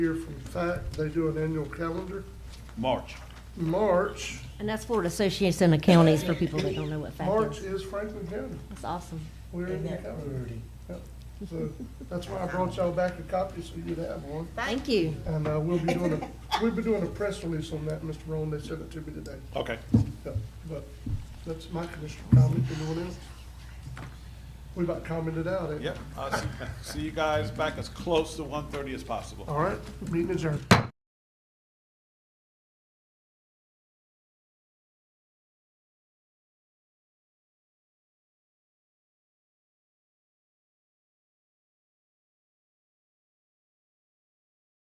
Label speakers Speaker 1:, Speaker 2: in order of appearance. Speaker 1: year from fact, they do an annual calendar.
Speaker 2: March.
Speaker 1: March,
Speaker 3: And that's Florida Association of Counties for people that don't know what FACT
Speaker 1: March
Speaker 3: is.
Speaker 1: is Franklin County.
Speaker 3: That's awesome.
Speaker 1: We're in the calendar. Yep. So that's why I brought y'all back a copy so you'd have one.
Speaker 3: Thank you.
Speaker 1: And uh, we'll be doing a, we'll be doing a press release on that, Mr. Rowan. They sent it to me today.
Speaker 2: Okay.
Speaker 1: Yep. But that's my commissioner comment. Anyone else? We about commented out, eh?
Speaker 2: Yep. Uh, see- See you guys back as close to 1:30 as possible.
Speaker 1: All right, meeting adjourned.